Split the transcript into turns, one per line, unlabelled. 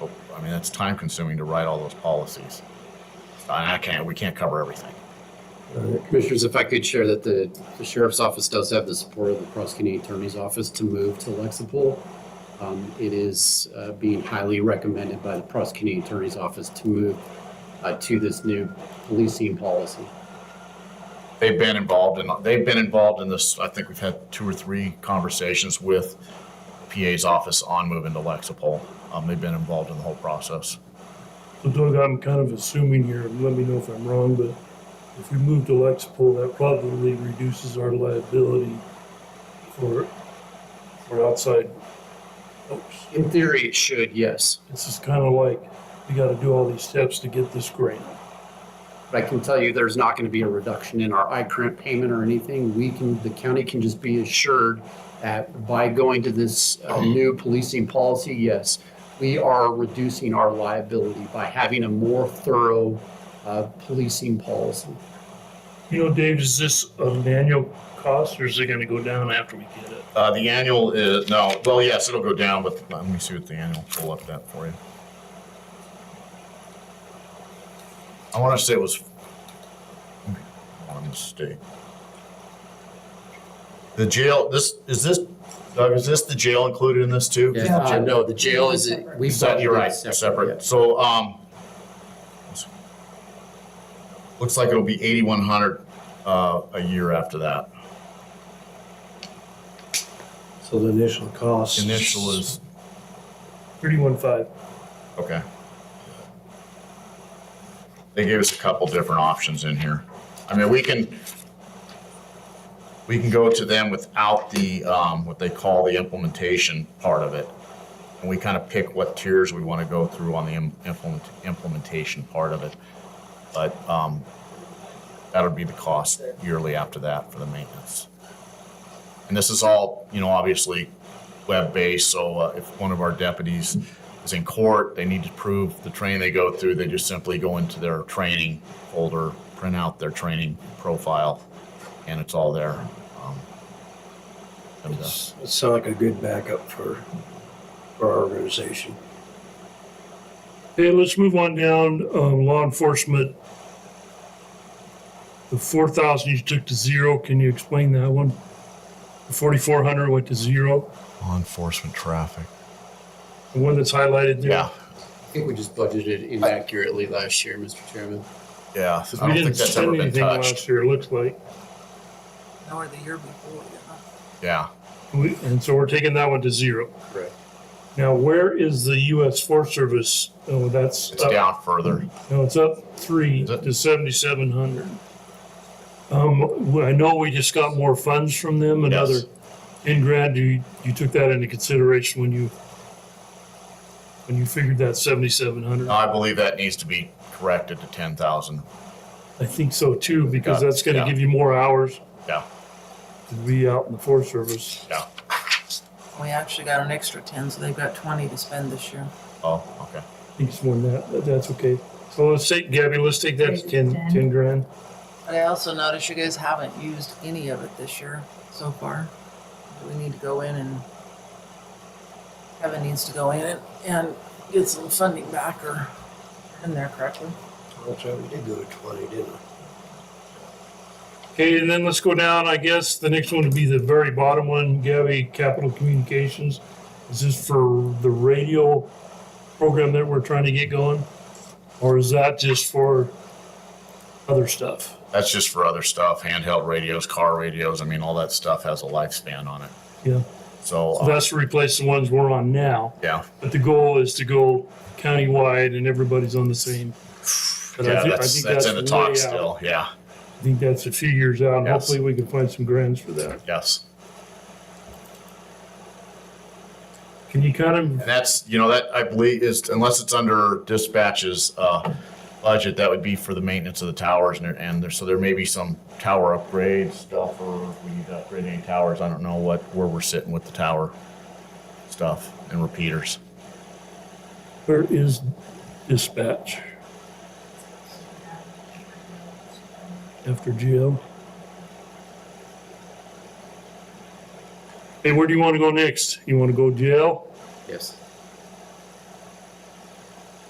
Oh, mean, it's time consuming to write all those policies. I I can't, we can't cover everything.
Uh, Commissioners, if I could share that the the sheriff's office does have the support of the prosecuting attorney's office to move to Lexipol. Um, It is uh, being highly recommended by the prosecuting attorney's office to move uh, to this new policing policy.
They've been involved in, they've been involved in this, I think we've had two or three conversations with PA's office on moving to Lexipol. Um, they've been involved in the whole process.
So Doug, I'm kind of assuming here, and let me know if I'm wrong, but if we move to Lexipol, that probably reduces our liability for, for outside folks.
In theory, it should, yes.
This is kind of like, we gotta do all these steps to get this grant.
But I can tell you, there's not going to be a reduction in our iCrant payment or anything. We can, the county can just be assured that by going to this uh, new policing policy, yes, we are reducing our liability by having a more thorough uh, policing policy.
You know, Dave, is this an annual cost or is it gonna go down after we get it?
Uh, the annual is, no, well, yes, it'll go down, but let me see what the annual, pull up that for you. I want to say it was, I want to mistake. The jail, this, is this, Doug, is this the jail included in this too?
Yeah.
Uh, No, the jail is, we.
Is that- You're right, separate. So, um, looks like it'll be eighty-one hundred, uh, a year after that.
So the initial cost.
Initial is,
Thirty-one five.
okay. They gave us a couple different options in here. I mean, we can, we can go to them without the, um, what they call the implementation part of it. And we kind of pick what tiers we want to go through on the im- implement, implementation part of it. But, um, that'll be the cost yearly after that for the maintenance. And this is all, you know, obviously web-based, so uh, if one of our deputies is in court, they need to prove the training they go through, they just simply go into their training folder, print out their training profile, and it's all there. Um, and, uh,
It's- It sounds like a good backup for, for our organization.
Okay, let's move on down, um, law enforcement. The four thousand you took to zero, can you explain that one? The forty-four hundred went to zero,
Law enforcement traffic.
the one that's highlighted there.
Yeah,
I think we just budgeted inaccurately last year, Mr. Chairman.
yeah.
Because
I
we
don't
didn't
think that's ever
spend
been
anything
touched.
last year, it looks like.
Or the year before, yeah.
Yeah.
We- And so we're taking that one to zero.
Right.
Now, where is the US Forest Service? Oh, that's.
It's
up-
down further.
No, it's up three
Is it?
to seventy-seven hundred. Um, well, I know we just got more funds from them, another
Yes.
ten grand, you, you took that into consideration when you, when you figured that seventy-seven hundred?
No, I believe that needs to be corrected to ten thousand.
I think so too, because
Got it,
that's gonna
yeah.
give you more hours
Yeah,
to be out in the Forest Service.
yeah.
We actually got an extra ten, so they've got twenty to spend this year.
Oh, okay.
I think it's more than that, but that's okay. So let's take, Gabby, let's take that to ten, ten grand.
But I also noticed you guys haven't used any of it this year so far. We need to go in and Kevin needs to go in and, and get some funding back or in there correctly.
That's right, we did go to twenty, didn't we?
Okay, and then let's go down, I guess, the next one would be the very bottom one, Gabby, Capital Communications. Is this for the radio program that we're trying to get going? Or is that just for other stuff?
That's just for other stuff, handheld radios, car radios. I mean, all that stuff has a lifespan on it.
Yeah,
So,
so
uh,
that's to replace the ones we're on now,
yeah,
but the goal is to go countywide and everybody's on the same. But I
yeah,
thi- I
that's,
think
that's in the
way
talk
out.
still. Yeah,
I think that's a few years out, and
Yes.
hopefully we can find some grants for that.
yes.
Can you kind of
And that's, you know, that I believe is, unless it's under dispatches, uh, budget, that would be for the maintenance of the towers and, there- and there, so there may be some tower upgrade stuff or if we need to upgrade any towers. I don't know what, where we're sitting with the tower stuff and repeaters.
Where is dispatch? After Geo. Hey, where do you want to go next? You want to go jail?
Yes.